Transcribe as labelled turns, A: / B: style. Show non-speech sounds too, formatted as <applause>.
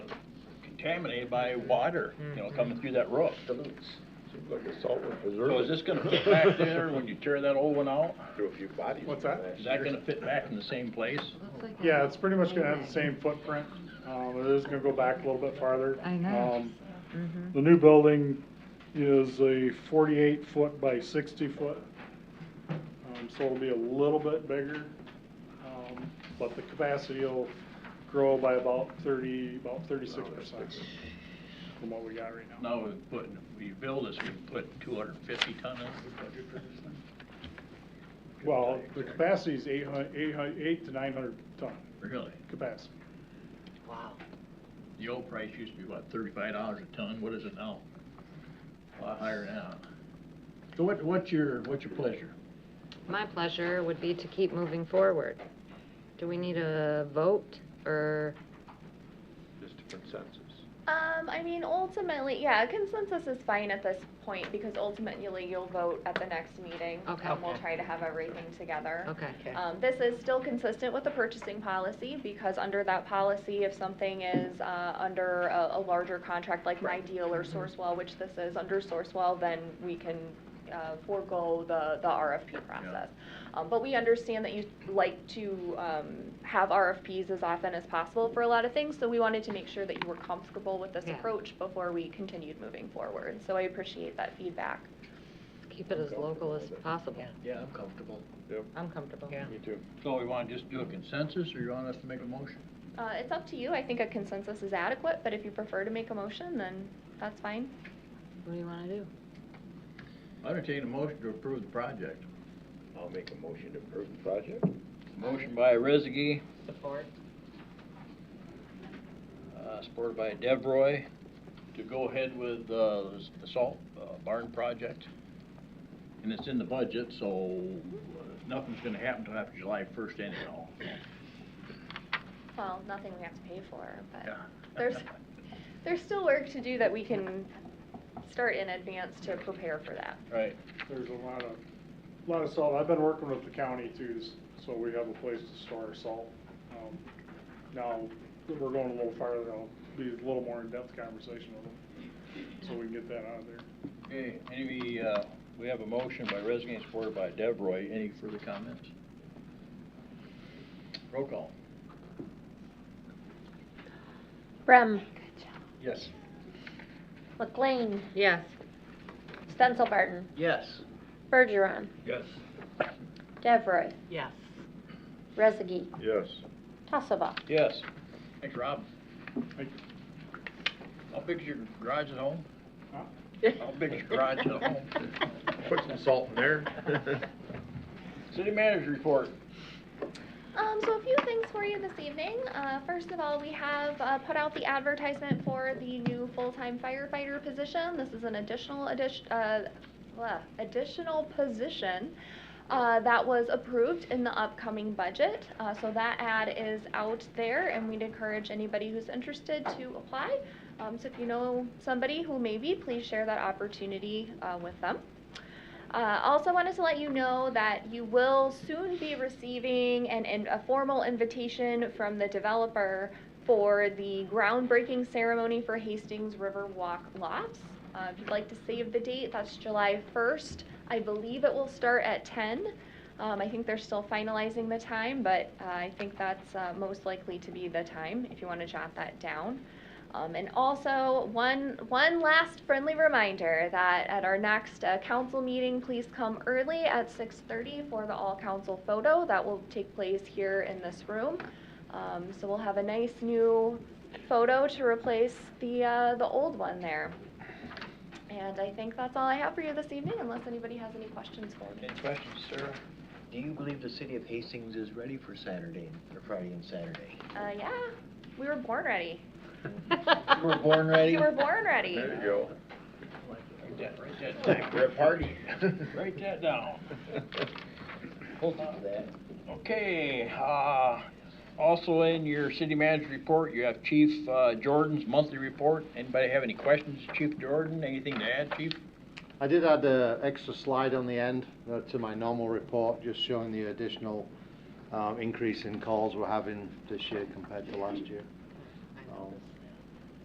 A: contaminated by water, you know, coming through that roof.
B: Seems like a saltwater
A: So is
B: preserve.
A: this gonna fit <laughs> back there when you tear that old one out?
B: Threw a few bodies.
C: What's
B: in
C: that?
B: last
A: Is that
B: year.
A: gonna fit back in the same place?
C: Yeah, it's pretty much gonna have the same footprint, um, it is gonna go back a little bit farther.
D: I know. Mm-hmm.
C: Um, The new building is a forty-eight foot by sixty foot, um, so it'll be a little bit bigger. um, But the capacity will grow by about thirty, about thirty-six percent from what we got right now.
A: Now, we put, we build this, we put two hundred and fifty ton in,
C: Well, the capacity is eight hun- eight hun- eight to nine hundred ton
A: really?
C: capacity.
A: The old price used to be what, thirty-five dollars a ton, what is it now? A lot higher now. So what, what's your, what's your pleasure?
D: My pleasure would be to keep moving forward. Do we need a vote, or,
B: Just a consensus.
E: Um, I mean, ultimately, yeah, consensus is fine at this point because ultimately you'll vote at the next meeting.
D: Okay.
E: And we'll try to have everything together.
D: okay.
E: Um, this is still consistent with the purchasing policy because under that policy, if something is, uh, under a, a larger contract like my deal
D: Mm-hmm.
E: or Sourcewell, which this is under Sourcewell, then we can, uh, forego the, the RFP process. Um, but we understand that you like to, um, have RFPs as often as possible for a lot of things, so we wanted to make sure that you were comfortable with this
D: Yeah.
E: approach before we continued moving forward. So I appreciate that feedback.
D: Keep it as local as possible.
A: Yeah, I'm comfortable.
D: I'm comfortable. Yeah.
B: Me too.
A: So we wanna just do a consensus, or you want us to make a motion?
E: Uh, it's up to you. I think a consensus is adequate, but if you prefer to make a motion, then that's fine.
D: What do you wanna do?
A: I entertain a motion to approve the project.
B: I'll make a motion to approve the project.
A: Motion by Rezegi,
D: Support.
A: uh, supported by Devroy, to go ahead with, uh, the salt uh, barn project. And it's in the budget, so uh, nothing's gonna happen till after July first anyhow.
E: Well, nothing we have to pay for, but
A: Yeah.
E: there's, there's still work to do that we can start in advance to prepare for that.
A: Right,
C: There's a lot of, lot of salt, I've been working with the county too, s- so we have a place to store our salt. Um, Now, that we're going a little farther, I'll be a little more in-depth conversation with them, so we can get that out of there.
A: okay, any, uh, we have a motion by Rezegi, supported by Devroy, any further comments? Roll call.
F: Brem,
A: Yes.
F: McLean,
D: Yes.
F: Stenzelbarton,
A: Yes.
F: Bergeron,
A: Yes.
F: Devroy,
D: Yes.
F: Rezegi,
B: Yes.
F: Tassava.
A: Yes. Thanks, Rob.
C: Thank you.
A: How big is your garage at home?
C: Huh?
A: How big is your garage at home?
D: <laughs>
B: Put some salt in there.
A: City manager report.
E: Um, so a few things for you this evening. Uh, first of all, we have, uh, put out the advertisement for the new full-time firefighter position. This is an additional addition, uh, blah, additional position, uh, that was approved in the upcoming budget. Uh, so that ad is out there and we'd encourage anybody who's interested to apply. Um, so if you know somebody who may be, please share that opportunity, uh, with them. Uh, also wanted to let you know that you will soon be receiving an, an, a formal invitation from the developer for the groundbreaking ceremony for Hastings River Walk Lofts. Uh, if you'd like to save the date, that's July 1st. I believe it will start at 10. Um, I think they're still finalizing the time, but uh, I think that's uh, most likely to be the time if you want to jot that down. Um, and also, one, one last friendly reminder that at our next uh, council meeting, please come early at 6:30 for the all-council photo. That will take place here in this room. Um, so we'll have a nice new photo to replace the, uh, the old one there. And I think that's all I have for you this evening, unless anybody has any questions for me.
G: Any questions, sir? <laughs> Do you believe the city of Hastings is ready for Saturday, and- or Friday and Saturday?
E: Uh, yeah, we were born ready.
G: You were born ready?
E: <laughs> We were born ready.
B: There you go.
A: Write that, write <laughs> that down.
G: We're a party. <laughs>
A: Write that down.
G: Hold on to that.
A: Okay, uh, also in your city manager report, you have Chief, uh, Jordan's monthly report. Anybody have any questions, Chief Jordan? Anything to add, Chief?
H: I did add a extra slide on the end uh, to my normal report, just showing the additional um, increase in calls we're having this year compared to last year. Um,